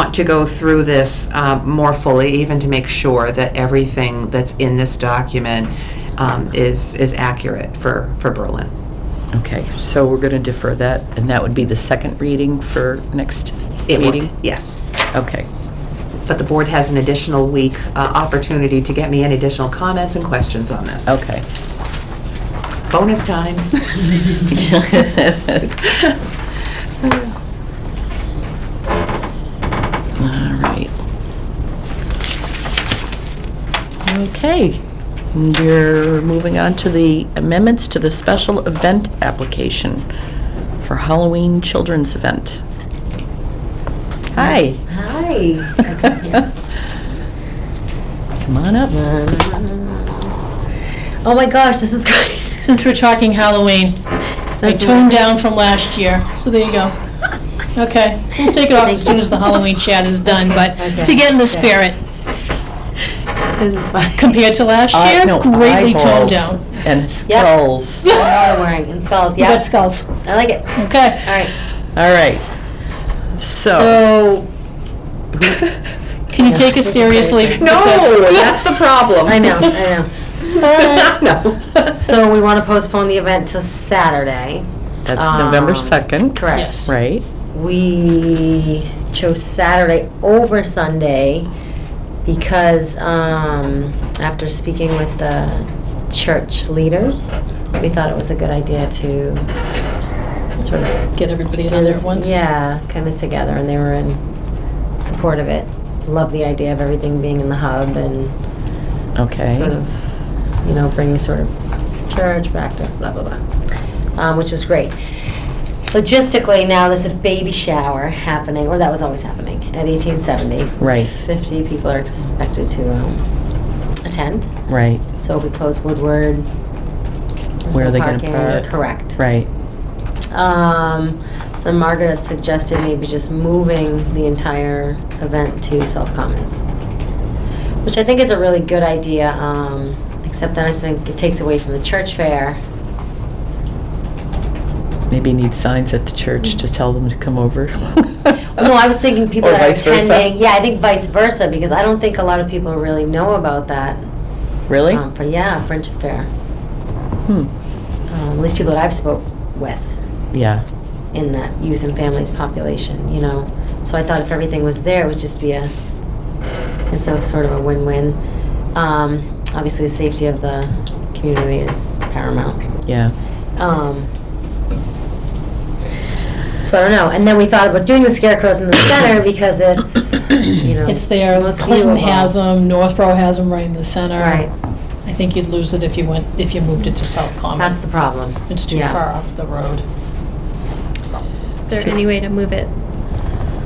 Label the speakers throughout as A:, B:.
A: want to go through this uh, more fully, even to make sure that everything that's in this document um, is, is accurate for, for Berlin.
B: Okay, so we're going to defer that, and that would be the second reading for next
A: It would-
B: meeting?
A: Yes.
B: Okay,
A: But the board has an additional week uh, opportunity to get me any additional comments and questions on this.
B: okay.
A: Bonus time.
B: All right. Okay, we're moving on to the amendments to the special event application for Halloween children's event. Hi.
C: Hi.
B: Come on up.
C: Oh my gosh, this is great.
D: Since we're talking Halloween, I toned down from last year, so there you go. Okay, we'll take it off as soon as the Halloween chat is done, but to get in the spirit,
C: This is fun.
D: compared to last
B: I-
D: year,
B: Uh, no,
D: greatly
B: eyeballs
D: toned down.
B: And skulls.
C: We're all wearing in skulls,
D: We
C: yeah.
D: got skulls,
C: I like it. All
D: okay.
C: right.
B: All right. So,
D: So, can you take us seriously? with
A: No,
D: this?
A: that's the problem.
C: I know, I
A: No.
C: know. So we want to postpone the event till Saturday.
B: that's November
C: Um,
B: 2nd,
C: Correct.
D: Yes.
B: right?
C: We chose Saturday over Sunday because um, after speaking with the church leaders, we thought it was a good idea to sort of
D: Get everybody
C: do
D: in there
C: this-
D: at once.
C: Yeah, kind of together, and they were in support of it. Love the idea of everything being in the hub and
B: Okay.
C: sort of, you know, bringing sort of church back to blah, blah, blah, um, which was great. Logistically, now there's a baby shower happening, or that was always happening, at 1870.
B: Right.
C: 50 people are expected to um, attend.
B: Right,
C: So we close Woodward. There's
B: Where are
C: no
B: they gonna
C: parking,
B: park?
C: Correct.
B: right.
C: Um, so Margaret had suggested maybe just moving the entire event to self-comments, which I think is a really good idea, um, except then I think it takes away from the church fair.
B: Maybe need signs at the church to tell them to come over.
C: No, I was thinking people
B: Or
C: that are
B: vice versa?
C: attending, yeah, I think vice versa, because I don't think a lot of people really know about that.
B: Really?
C: um, For, yeah, friendship fair,
B: Hmm,
C: um, at least people that I've spoke with.
B: yeah,
C: in that youth and families population, you know? So I thought if everything was there, it would just be a, it's a sort of a win-win. Um, obviously, the safety of the community is paramount.
B: yeah.
C: Um, so I don't know. And then we thought about doing the scarecrows in the center because it's, you know.
D: It's there,
C: most
D: Clinton
C: viewable.
D: has them, Northborough has them right in the center.
C: Right,
D: I think you'd lose it if you went, if you moved it to South Common.
C: that's the problem.
D: Um, It's too
C: Yeah.
D: far off the road.
E: Is there any way to move it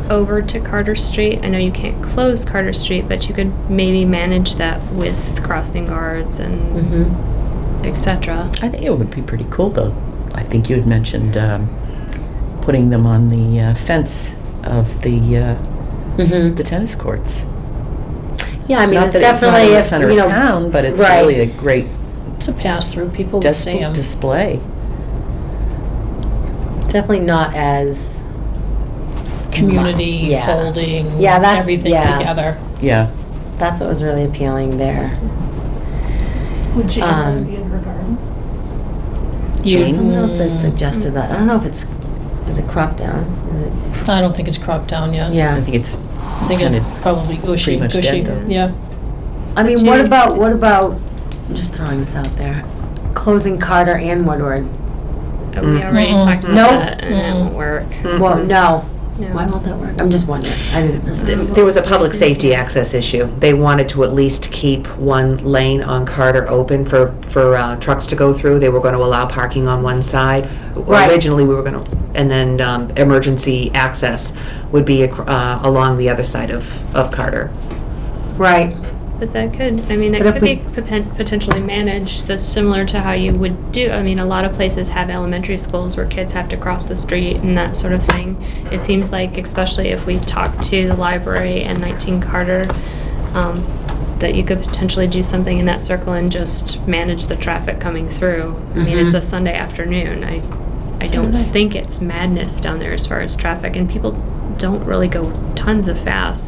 E: over to Carter Street? I know you can't close Carter Street, but you could maybe manage that with crossing guards and
C: Mhm.
E: et cetera.
B: I think it would be pretty cool, though. I think you had mentioned um, putting them on the uh, fence of the, uh,
C: Mhm.
B: the tennis courts.
C: Yeah, I mean,
B: Not
C: it's
B: that it's not
C: definitely,
B: in the
C: if,
B: center
C: you
B: of
C: know.
B: town, but it's
C: right.
B: really a great
D: It's a pass-through, people would
B: dis-
D: see them.
B: display.
C: Definitely not as
D: community
C: Yeah.
D: holding
C: Yeah, that's-
D: everything
C: yeah.
D: together.
B: Yeah,
C: That's what was really appealing there.
F: Would Jane
C: Um,
F: be in her garden?
D: You-
C: Someone else had suggested that. I don't know if it's, is it crop down? Is it?
D: I don't think it's cropped down yet.
B: I
C: Yeah.
B: think it's,
D: I think
B: Kinda
D: it's probably gushy,
B: pretty much
D: gushy.
B: dead, though.
D: Yeah.
C: I mean, what
E: Jane-
C: about, what about, I'm just throwing this out there, closing Carter and Woodward?
E: Uh, We already
D: Mm-mm.
E: talked about
C: Nope.
E: that and it won't work.
C: Well,
A: Mm-hmm.
C: no. Why
E: No.
C: won't that work? I'm just wondering. I didn't.
A: There was a public safety access issue. They wanted to at least keep one lane on Carter open for, for uh, trucks to go through. They were going to allow parking on one side.
C: Right.
A: Originally, we were going to, and then um, emergency access would be ac- uh, along the other side of, of Carter.
C: Right.
E: But that could, I mean, that
C: But if
E: could
C: we-
E: be poten- potentially managed, that's similar to how you would do, I mean, a lot of places have elementary schools where kids have to cross the street and that sort of thing. It seems like, especially if we talk to the library and 19 Carter, um, that you could potentially do something in that circle and just manage the traffic coming through. I mean, it's
C: Mhm.
E: a Sunday afternoon. I, I don't
D: Totally.
E: think it's madness down there as far as traffic, and people don't really go tons of fast.